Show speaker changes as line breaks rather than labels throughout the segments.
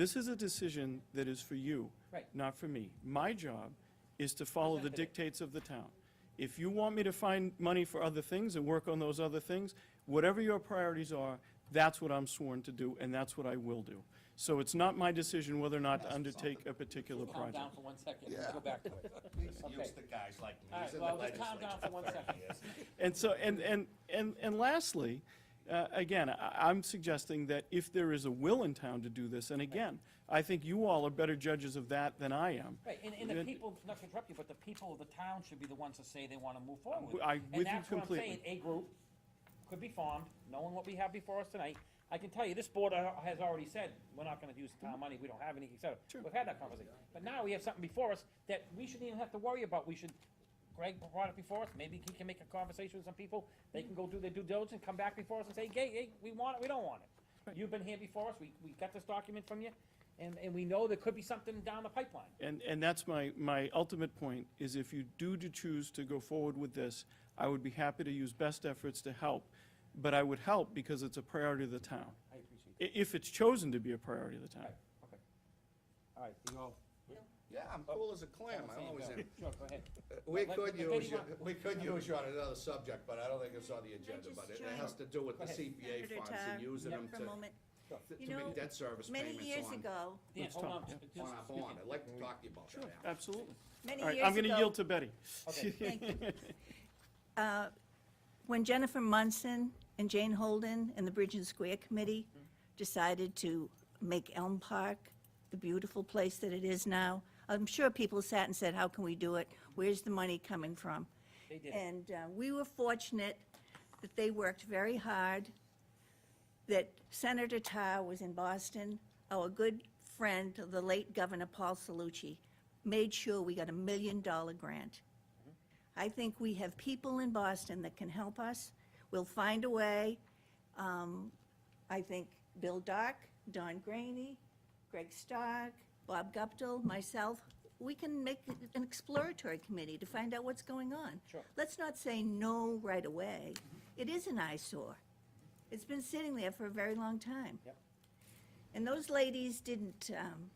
This is a decision that is for you.
Right.
Not for me. My job is to follow the dictates of the town. If you want me to find money for other things and work on those other things, whatever your priorities are, that's what I'm sworn to do, and that's what I will do. So it's not my decision whether or not to undertake a particular
Calm down
project.
for one second, let's go back to it. Okay.
Use the guys like me.
All right,
He's in
well,
the
let's calm down
legislature
for one
thirty
second.
years.
And so, and, and, and, and lastly, uh, again, I, I'm suggesting that if there is a will in town to do this, and again, I think you all are better judges of that than I am.
Right, and, and the
Then-
people, not to interrupt you, but the people of the town should be the ones to say they wanna move forward.
I- with you completely.
And that's what I'm saying, a group could be formed, knowing what we have before us tonight. I can tell you, this board uh, has already said, we're not gonna use town money, we don't have any, et cetera.
Sure.
We've had that conversation. But now we have something before us that we shouldn't even have to worry about. We should, Greg brought it before us, maybe he can make a conversation with some people. They can go do their due diligence and come back before us and say, hey, hey, we want it, we don't want it. You've been here before us, we, we got this document from you, and, and we know there could be something down the pipeline.
And, and that's my, my ultimate point, is if you do to choose to go forward with this, I would be happy to use best efforts to help, but I would help because it's a priority of the town,
I appreciate
i- if it's chosen to be a priority of the town.
Right, okay. All right, you all.
Yeah, I'm cool as a
Oh,
clam, I always am.
Sure, go ahead.
We
Let- let-
could
let
use, you-
anyone-
we could use you on another subject, but I don't think it's on the agenda,
just
but it
join-
has to do with the
Go ahead.
CPA
Senator
funds
Tar,
and using them
for a
to,
moment.
to
You
make
know,
debt service
Many years
payments on,
ago,
Dan,
Let's
hold
talk,
on.
yeah.
just-
on our bond. I'd like to talk to you about that. after.
Absolutely.
many
All right,
years ago.
I'm going to yield to Betty.
Okay.
Thank you. Uh, When Jennifer Munson and Jane Holden and the Bridge and Square Committee decided to make Elm Park the beautiful place that it is now, I'm sure people sat and said, how can we do it? Where's the money coming from?
They did.
And uh, we were fortunate that they worked very hard, that Senator Tarr was in Boston. Our good friend, the late Governor Paul Salucci, made sure we got a million-dollar grant. I think we have people in Boston that can help us. We'll find a way. Um, I think Bill Dark, Don Graney, Greg Stark, Bob Guptill, myself, we can make an exploratory committee to find out what's going on.
Sure.
Let's not say no right away. It is an eyesore. It's been sitting there for a very long time.
Yep.
And those ladies didn't um,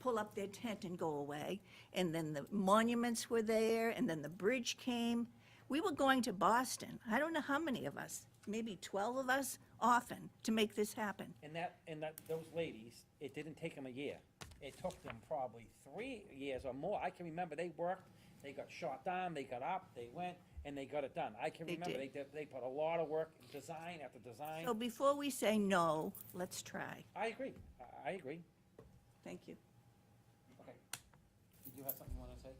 pull up their tent and go away. And then the monuments were there, and then the bridge came. We were going to Boston, I don't know how many of us, maybe 12 of us, often, to make this happen.
And that, and that, those ladies, it didn't take them a year. It took them probably three years or more. I can remember they worked, they got shot down, they got up, they went, and they got it done. I can
They
remember, they,
did.
did- they put a lot of work, design after design.
So before we say no, let's try.
I agree, I, I agree.
Thank you.
Okay. Did you have something you wanna say?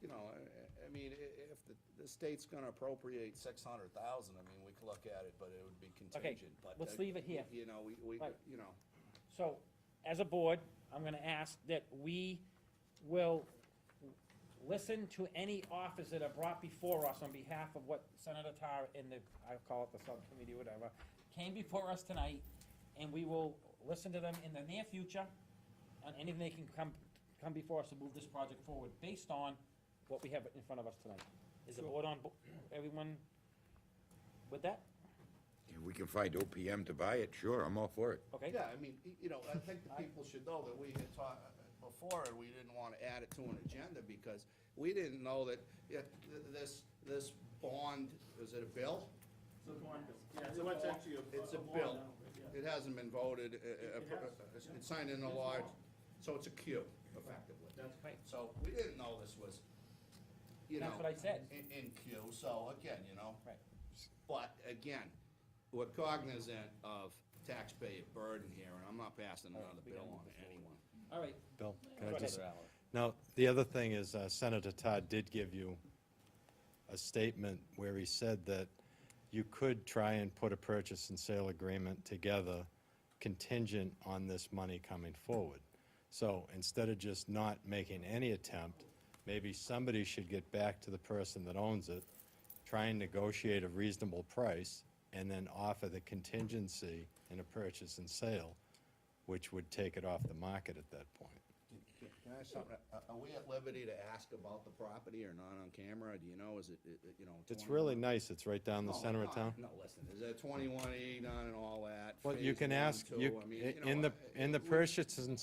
You know, I, I mean, i- if the, the state's gonna appropriate six hundred thousand, I mean, we could look at it, but it would be contingent, but.
let's
uh,
leave it here.
You know, we, we,
Right.
you know.
So, as a board, I'm gonna ask that we will listen to any offers that are brought before us on behalf of what Senator Tarr and the, I call it the subcommittee, whatever, came before us tonight, and we will listen to them in the near future, on anything they can come, come before us to move this project forward, based on what we have in front of us tonight. Is the board on, bo- everyone with that?
If we can find OPM to buy it, sure, I'm all for it.
Okay?
Yeah, I mean, y- you know, I think the people should know that we had talked before, and we didn't want to add it to an agenda, because we didn't know that, yeah, th- this, this bond, is it a bill?
so it's actually
It's a bill. It hasn't been voted, uh, uh, uh, it's signed into law, so it's a queue, effectively.
right.
So we didn't know this was, you know.
That's what I said.
In, in queue, so again, you know.
Right.
But again, we're cognizant of taxpayer burden here, and I'm not passing another bill on to anyone.
All right,
Bill,
Go
can I
ahead.
just, now, the other thing is uh, Senator Todd did give you a statement where he said that you could try and put a purchase and sale agreement together contingent on this money coming forward. So instead of just not making any attempt, maybe somebody should get back to the person that owns it, try and negotiate a reasonable price, and then offer the contingency in a purchase and sale, which would take it off the market at that point.
Can can
Can I ask something? Are- Are we at liberty to ask about the property or not on camera? Do you know, is it, it- it, you know?
It's
21?
really nice. It's right down the
No,
center of
no,
town.
Oh, No, listen, is that twenty-one E done and all that?
Well, you
phase
can
one,
ask,
two,
you,
I mean,
i-
you know,
in the,
I-
in the
we-
purchase and